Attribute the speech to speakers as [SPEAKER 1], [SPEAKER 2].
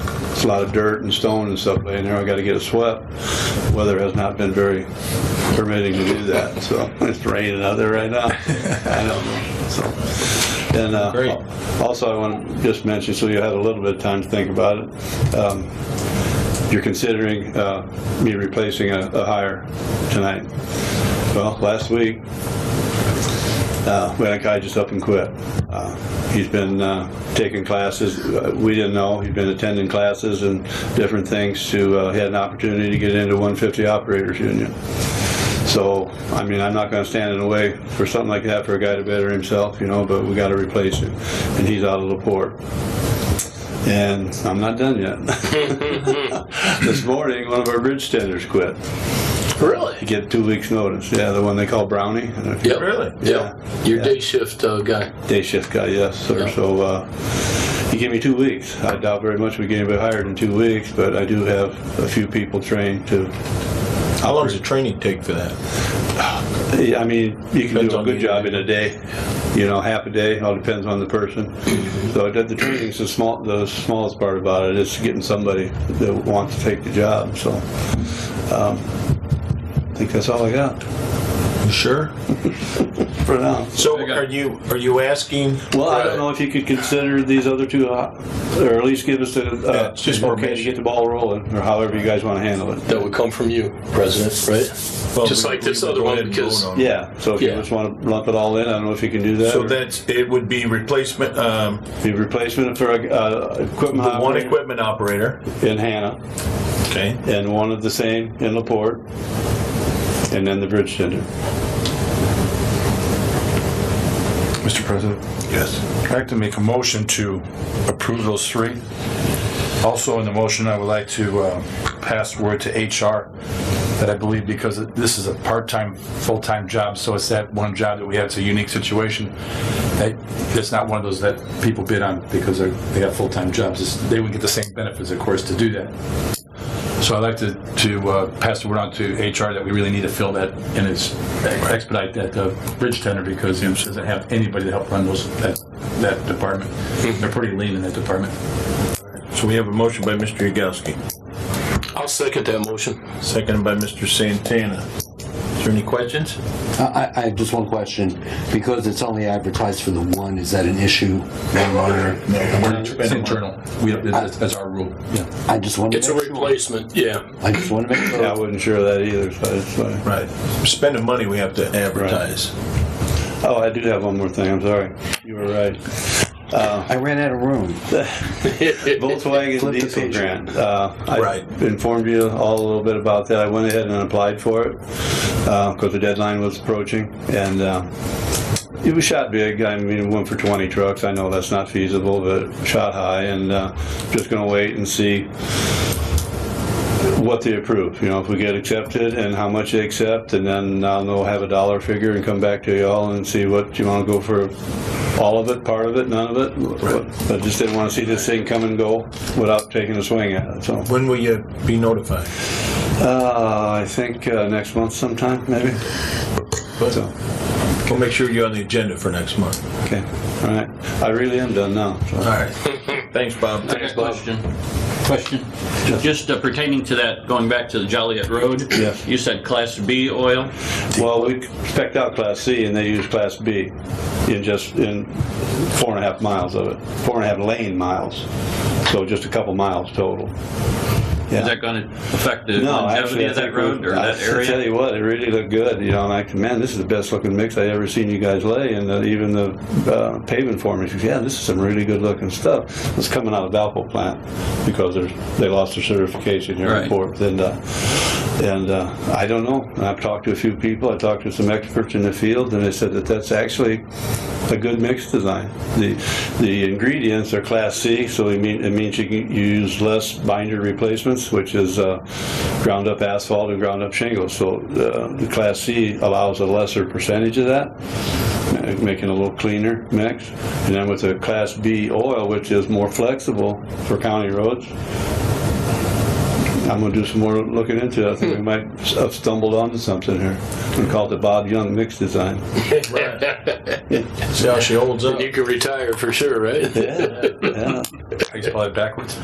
[SPEAKER 1] a lot of dirt and stone and stuff laying there. I got to get it swept. Weather has not been very permitting to do that, so it's raining out there right now. I know, so. And uh,
[SPEAKER 2] Great.
[SPEAKER 1] also, I want to just mention, so you had a little bit of time to think about it. Um, You're considering uh, me replacing a a hire tonight. Well, last week, uh, we had a guy just up and quit. Uh, He's been uh, taking classes, uh, we didn't know, he'd been attending classes and different things to, uh, he had an opportunity to get into 150 Operators Union. So, I mean, I'm not gonna stand in the way for something like that for a guy to better himself, you know, but we gotta replace him, and he's out of the port. And I'm not done yet. This morning, one of our bridge tenders quit.
[SPEAKER 2] Really?
[SPEAKER 1] Get two weeks' notice, yeah, the one they call Brownie. I don't know if you
[SPEAKER 2] Yeah.
[SPEAKER 3] Really?
[SPEAKER 2] Yeah. Your day shift uh, guy.
[SPEAKER 1] Day shift guy, yes, sir.
[SPEAKER 2] Yeah.
[SPEAKER 1] So uh, he gave me two weeks. I doubt very much we get anybody hired in two weeks, but I do have a few people trained to.
[SPEAKER 3] How long does the training take for that?
[SPEAKER 1] I mean, you can
[SPEAKER 3] Depends
[SPEAKER 1] do a
[SPEAKER 3] on
[SPEAKER 1] good
[SPEAKER 3] the-
[SPEAKER 1] job in a day. You know, half a day. All depends on the person. So the the training's the small, the smallest part about it. It's getting somebody that wants to take the job. So um, I think that's all I got
[SPEAKER 3] You sure?
[SPEAKER 1] for now.
[SPEAKER 3] So are you are you asking?
[SPEAKER 1] Well, I don't
[SPEAKER 2] Right.
[SPEAKER 1] know if you could consider these other two, uh, or at least give us the,
[SPEAKER 3] Yeah,
[SPEAKER 1] uh,
[SPEAKER 3] it's just more
[SPEAKER 1] okay to
[SPEAKER 3] basic.
[SPEAKER 1] get the ball rolling, or however you guys want to handle it.
[SPEAKER 2] That would come from you, President, right?
[SPEAKER 3] Well,
[SPEAKER 2] Just
[SPEAKER 3] we-
[SPEAKER 2] like this
[SPEAKER 3] we would
[SPEAKER 2] other
[SPEAKER 3] go
[SPEAKER 2] one,
[SPEAKER 3] ahead and
[SPEAKER 2] because-
[SPEAKER 3] vote on it.
[SPEAKER 1] Yeah, so if you
[SPEAKER 2] Yeah.
[SPEAKER 1] just want to lump it all in, I don't know if you can do that.
[SPEAKER 3] So
[SPEAKER 1] or
[SPEAKER 3] that's it would be replacement um,
[SPEAKER 1] Be replacement for a, uh, equipment
[SPEAKER 3] the one
[SPEAKER 1] operator
[SPEAKER 3] equipment operator.
[SPEAKER 1] in Hannah,
[SPEAKER 3] Okay.
[SPEAKER 1] and one of the same in LaPorte, and then the bridge tender.
[SPEAKER 4] Mr. President,
[SPEAKER 3] Yes.
[SPEAKER 4] I'd like to make a motion to approve those three. Also, in the motion, I would like to uh, pass word to HR that I believe because this is a part-time, full-time job, so it's that one job that we have, it's a unique situation. that It's not one of those that people bid on because they're- they have full-time jobs. It's- They would get the same benefits, of course, to do that. So I'd like to, to uh, pass the word on to HR that we really need to fill that and it's expedite that uh, bridge tender because he doesn't have anybody to help run those, that, that department. They're pretty lean in that department.
[SPEAKER 3] So we have a motion by Mr. Yagowski,
[SPEAKER 2] I'll second that motion.
[SPEAKER 3] seconded by Mr. Santana. Is there any questions?
[SPEAKER 5] I, I have just one question. Because it's only advertised for the one, is that an issue? One monitor?
[SPEAKER 4] It's internal. We, have- that's that's our rule. Yeah.
[SPEAKER 5] I just want to
[SPEAKER 2] It's a
[SPEAKER 5] make sure.
[SPEAKER 2] replacement, yeah.
[SPEAKER 5] I just want to make
[SPEAKER 1] Yeah, I
[SPEAKER 5] sure.
[SPEAKER 1] wasn't sure of that either, so it's like.
[SPEAKER 3] Right. Spending money, we have to advertise.
[SPEAKER 1] Oh, I do have one more thing, I'm sorry. You were right.
[SPEAKER 5] I ran out of room.
[SPEAKER 1] Volkswagen
[SPEAKER 5] Flip the
[SPEAKER 1] diesel
[SPEAKER 5] page.
[SPEAKER 1] grant. Uh, I
[SPEAKER 3] Right.
[SPEAKER 1] informed you all a little bit about that. I went ahead and applied for it because the deadline was approaching, and uh, it was shot big. I mean, it went for 20 trucks. I know that's not feasible, but shot high, and uh, just going to wait and see what they approve, you know, if we get accepted and how much they accept, and then I'll know, have a dollar figure and come back to y'all and see what you want to go for, all of it, part of it, none of it. I just didn't want to see this thing come and go without taking a swing at it, so.
[SPEAKER 3] When will you be notified?
[SPEAKER 1] Uh, I think uh, next month sometime, maybe? So,
[SPEAKER 3] We'll make sure you're on the agenda for next month.
[SPEAKER 1] okay, all right. I really am done now, so.
[SPEAKER 3] All right. Thanks, Bob.
[SPEAKER 6] I got a Question. Question. Just uh, pertaining to that, going back to the Joliet Road.
[SPEAKER 1] Yes.
[SPEAKER 6] You said Class B oil.
[SPEAKER 1] Well, we spec'd out Class C and they used Class B in just, in four and a half miles of it, four and a half lane miles. So just a couple miles total.
[SPEAKER 6] Is that going to affect the
[SPEAKER 1] No,
[SPEAKER 6] longevity
[SPEAKER 1] actually, I
[SPEAKER 6] of that
[SPEAKER 1] think
[SPEAKER 6] road or
[SPEAKER 1] I-
[SPEAKER 6] that
[SPEAKER 1] I tell
[SPEAKER 6] area?
[SPEAKER 1] you what, it really looked good, you know, and I, man, this is the best looking mix I ever seen you guys lay, and uh, even the uh, paving formers, yeah, this is some really good looking stuff. It's coming out of Valpo plant, because there's, they lost their certification here in
[SPEAKER 6] Right.
[SPEAKER 1] Fort, and, uh, and uh, I don't know, and I've talked to a few people, I talked to some experts in the field, and they said that that's actually a good mix design. The, the ingredients are class C, so it mean, it means you can use less binder replacements, which is uh, ground up asphalt and ground up shingles. So uh, the class C allows a lesser percentage of that, ma- making a little cleaner mix. And then with the class B oil, which is more flexible for county roads, I'm gonna do some more looking into it. I think we might s- have stumbled onto something here. We call it the Bob Young mix design.
[SPEAKER 3] See how she holds up.
[SPEAKER 2] You can retire for sure, right?
[SPEAKER 1] Yeah, yeah.
[SPEAKER 4] How you spell that backwards?